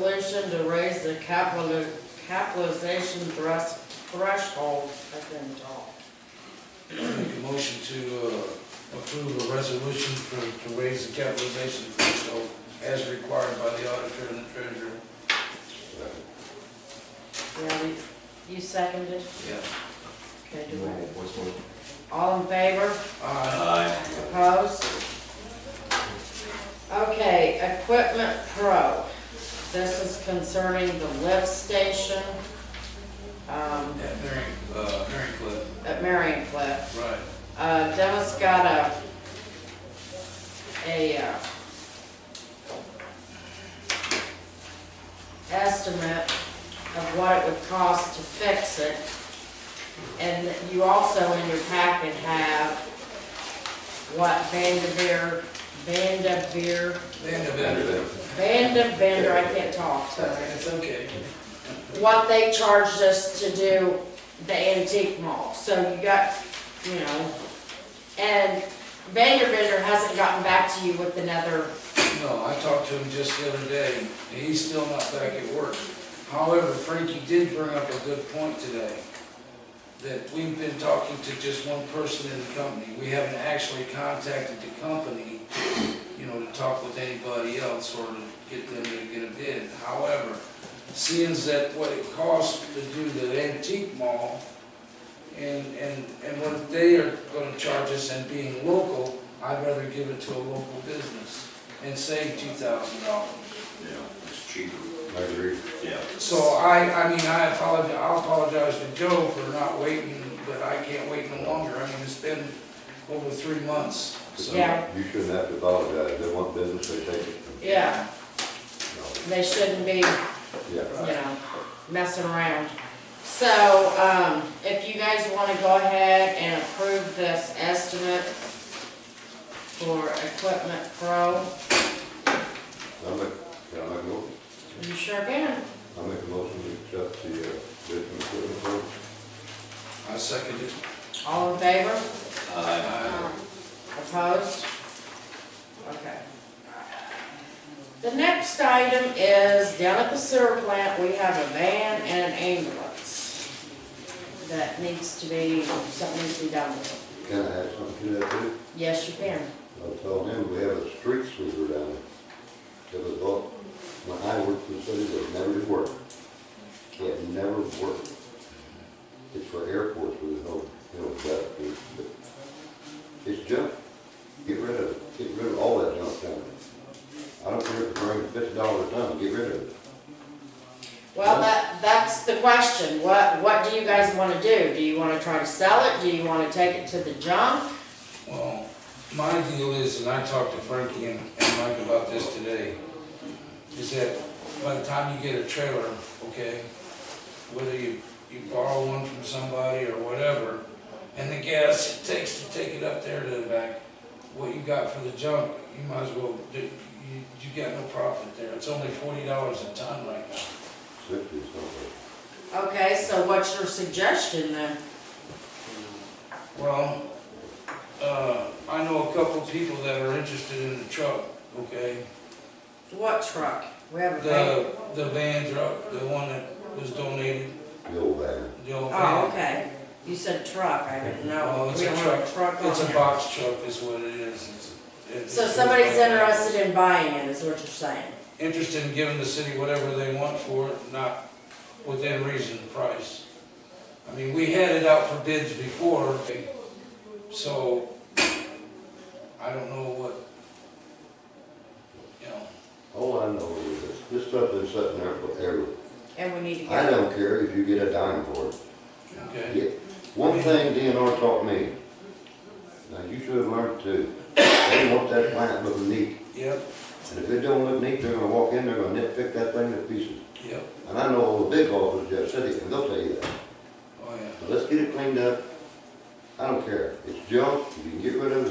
motion to raise the capital, capitalization thres- threshold, I couldn't talk. Make a motion to uh, approve a resolution for, to raise the capitalization threshold as required by the auditor and the treasurer. Yeah, you- you seconded? Yeah. Okay, do Roll, it. voice vote. All in favor? Aye. Aye. Opposed? Okay, Equipment Pro. This is concerning the lift station um, At Mary, uh, Mary Cliff, at Marion Cliff. right. Uh, Dennis got a, a, uh, estimate of what it would cost to fix it. And you also in your packet have what Vanderveer, Vanderveer, Vanderbilt. Vanderveer, I can't talk tonight It's okay. what they charged us to do the antique mall. So you got, you know, and Vanderbilt hasn't gotten back to you with another, No, I talked to him just the other day, and he's still not back at work. However, Frankie did bring up a good point today, that we've been talking to just one person in the company. We haven't actually contacted the company, you know, to talk with anybody else or to get them to get a bid. However, seeing as that what it costs to do the antique mall, and, and, and what they are gonna charge us and being local, I'd rather give it to a local business and save two thousand dollars. Yeah, it's cheaper. I agree. Yeah. So I, I mean, I apologize, I apologize to Joe for not waiting, but I can't wait no longer. I mean, it's been over three months, so. Yeah. You shouldn't have to apologize. They want business, they take it. yeah, No, they shouldn't be, you Yeah. know, messing around. So, um, if you guys wanna go ahead and approve this estimate for Equipment Pro, I'll make, can I make a motion? you sure can. I'll make a motion to accept the, uh, bid from equipment firm. I second it. All in favor? Aye. I- Opposed? Okay. The next item is down at the sewer plant, we have a van and an ambulance that needs to be, something needs to be done with it. Can I add something to that too? Yes, you can. I told him we have a street sweeper down there. It was all, when I worked in the city, it never did work. It never worked. It's for airports with no, you know, that, but it's junk. Get rid of it. Get rid of all that junk down there. I don't care if it brings fifty dollars a ton, get rid of it. Well, that, that's the question. What, what do you guys wanna do? Do you wanna try to sell it? Do you wanna take it to the junk? Well, my deal is, and I talked to Frankie and and Mike about this today, is that by the time you get a trailer, okay, whether you, you borrow one from somebody or whatever, and the gas it takes to take it up there to the back, what you got for the junk, you might as well, do- you, you got no profit there. It's only forty dollars a ton right now. Sixty or something. Okay, so what's your suggestion then? Well, uh, I know a couple people that are interested in the truck, okay? What truck? We have a van. The, the van truck, the one that was donated, The old van. the old Oh, van. okay. You said truck, I didn't know. Oh, it's We a don't have a truck It's a on there. box truck is what it is. It's- it's- So somebody's interested in buying it, is what you're saying? Interested in giving the city whatever they want for it, not within reason price. I mean, we had it out for bids before, so I don't know what, you know. All I know is this, this stuff is sitting there forever. And we need to I get, don't care if you get a dime for it. Okay, Yeah, one thing DNR taught me, now you should have learned too, they want that plant looking neat. yep, And if it don't look neat, they're gonna walk in, they're gonna nitpick that thing to pieces. yep, And I know all the big offices in the city, and they'll tell you that. oh yeah. So let's get it cleaned up. I don't care, it's junk, you can get rid of it,